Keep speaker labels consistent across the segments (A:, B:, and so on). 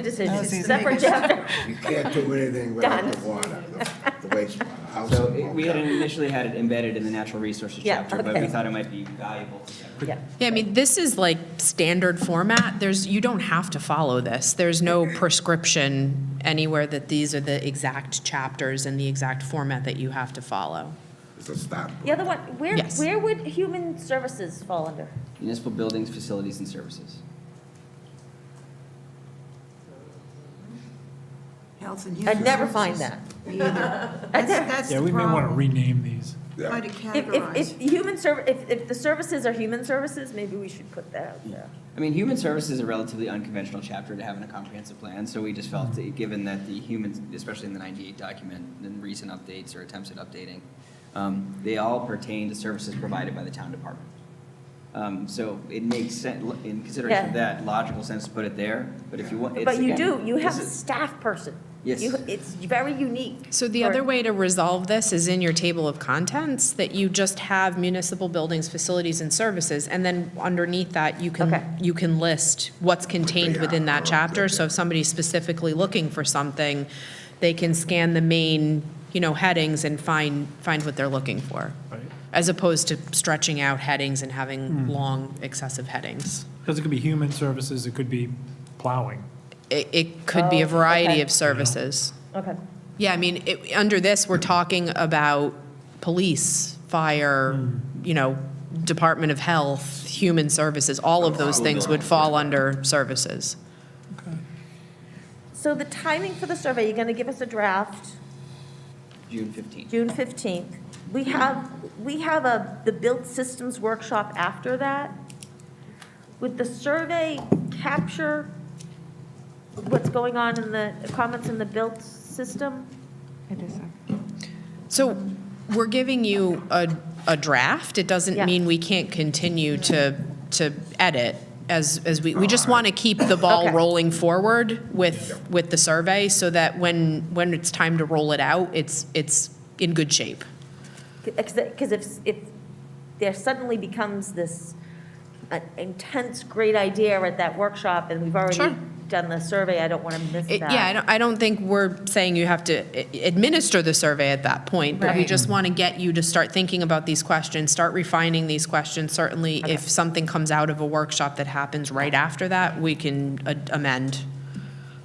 A: Oh,
B: decisions,
C: easy.
B: separate chapter.
D: You can't do anything without the
B: Done.
D: water, the the wastewater. House
A: So
D: and
A: it- we had initially had it embedded in the natural resources
B: Yeah,
A: chapter, but
B: okay.
A: we thought it might be valuable to separate.
B: Yeah.
E: Yeah, I mean, this is like standard format. There's, you don't have to follow this. There's no prescription anywhere that these are the exact chapters and the exact format that you have to follow.
D: It's a stop.
B: The other one, where,
E: Yes.
B: where would human services fall under?
A: Municipal buildings, facilities, and services.
C: Health and human.
B: I'd never find that.
C: Either.
B: I'd
C: That's,
B: never-
C: that's the problem.
F: Yeah, we may want to rename these.
D: Yeah.
C: Try to
B: If, if,
C: categorize.
B: if human serv, if, if the services are human services, maybe we should put that out there.
A: I mean, human services is a relatively unconventional chapter to have in a comprehensive plan, so we just felt, that given that the humans, especially in the 98 document, and recent updates or attempts at updating, um, they all pertain to services provided by the town department. Um, So it makes sense, in consideration of
B: Yeah.
A: that, logical sense to put it there, but if you want, it's
B: But you
A: again,
B: do, you have
A: this
B: a
A: is-
B: staff person.
A: Yes.
B: You- It's very unique.
E: So the
B: for-
E: other way to resolve this is in your table of contents, that you just have municipal buildings, facilities, and services, and then underneath that, you
B: Okay.
E: can, you can list what's contained
D: Yeah,
E: within that
D: okay,
E: chapter. So if somebody's specifically looking for something, they can scan the main, you know, headings and find, find what they're looking for.
F: Right.
E: As opposed to stretching out headings and having long excessive headings.
F: Because it could be human services, it could be plowing.
E: It, it could be a
B: Oh,
E: variety
B: okay.
E: of services.
B: Okay.
E: Yeah, I mean, it, under this, we're talking about police, fire, you know, Department of Health, Human Services, all of those things would fall under services.
B: So the timing for the survey, you're gonna give us a draft,
A: June 15th.
B: June fifteenth. We have, we have a, the built systems workshop after that. Would the survey capture what's going on in the, comments in the built system?
E: So we're giving you a, a draft. It
B: Yeah.
E: doesn't mean we can't continue to, to edit as, as we, we just want to keep the ball
B: Okay.
E: rolling forward with, with the survey so that when, when it's time to roll it out, it's, it's in good shape.
B: Because if, if there suddenly becomes this uh, intense, great idea at that workshop, and we've already
E: Sure.
B: done the survey, I don't want to miss
E: It-
B: that.
E: Yeah, I don't, I don't think we're saying you have to i- administer the survey at that point, but we
B: Right.
E: just want to get you to start thinking about these questions, start refining these questions. Certainly, if something comes out of a workshop that happens right after that, we can a- amend.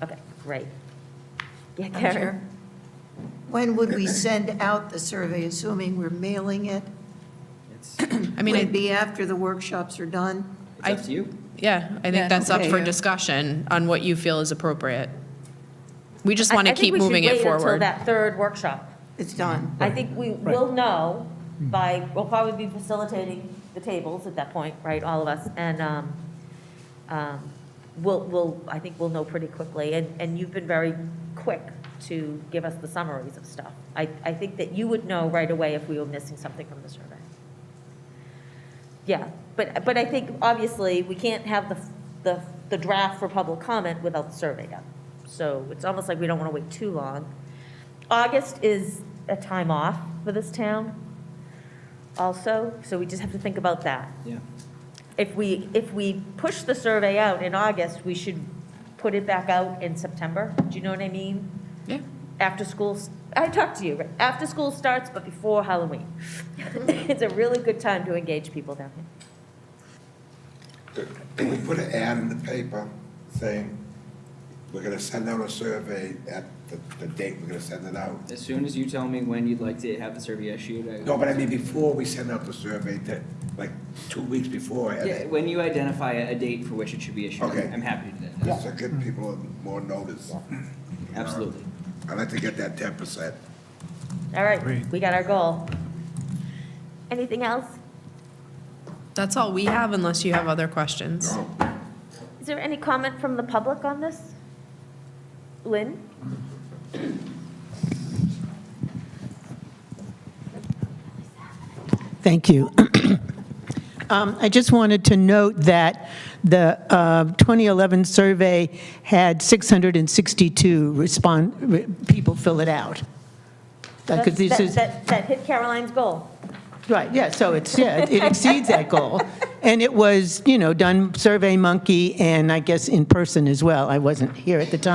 B: Okay, great. Yeah,
C: Madam
B: Karen?
C: Chair, When would we send out the survey, assuming we're mailing it?
A: It's
E: I mean,
C: Would it
E: I-
C: be after the workshops are done?
A: it's up to you.
E: yeah, I think that's up
C: Okay,
E: for
C: yeah.
E: discussion on what you feel is appropriate. We just want
B: I-
E: to keep moving it
B: I think we should wait until
E: forward.
B: that third workshop.
C: It's done.
B: I think we will know by, we'll probably be facilitating the tables at that point, right, all of us, and um, um, we'll, we'll, I think we'll know pretty quickly, and, and you've been very quick to give us the summaries of stuff. I, I think that you would know right away if we were missing something from the survey. Yeah, but, but I think, obviously, we can't have the, the, the draft for public comment without the survey done. So it's almost like we don't want to wait too long. August is a time off for this town also, so we just have to think about that.
A: Yeah.
B: If we, if we push the survey out in August, we should put it back out in September. Do you know what I mean?
E: Yeah.
B: After school, s- I talked to you, right? after school starts, but before Halloween. It's a really good time to engage people down here.
D: Can we put an ad in the paper saying, we're gonna send out a survey at the, the date we're gonna send it out?
A: As soon as you tell me when you'd like to have the survey issued, I.
D: No, but I mean, before we send out the survey, that, like, two weeks before, and
A: Yeah,
D: it-
A: when you identify a a date for which it should be issued,
D: Okay.
A: I'm happy to do that.
D: just to give people more notice.
A: Absolutely.
D: I'd like to get that ten percent.
B: All right,
F: Agreed.
B: we got our goal. Anything else?
E: That's all we have unless you have other questions.
D: Oh.
B: Is there any comment from the public on this? Lynn?
G: Thank you. Um, I just wanted to note that the uh, 2011 survey had 662 respond, re- people fill it out. Because this
B: That-
G: is,
B: That, that hit Caroline's goal.
G: right, yeah, so it's, yeah, it exceeds that goal. And it was, you know, done Survey Monkey and I guess in person as well. I wasn't here at the time.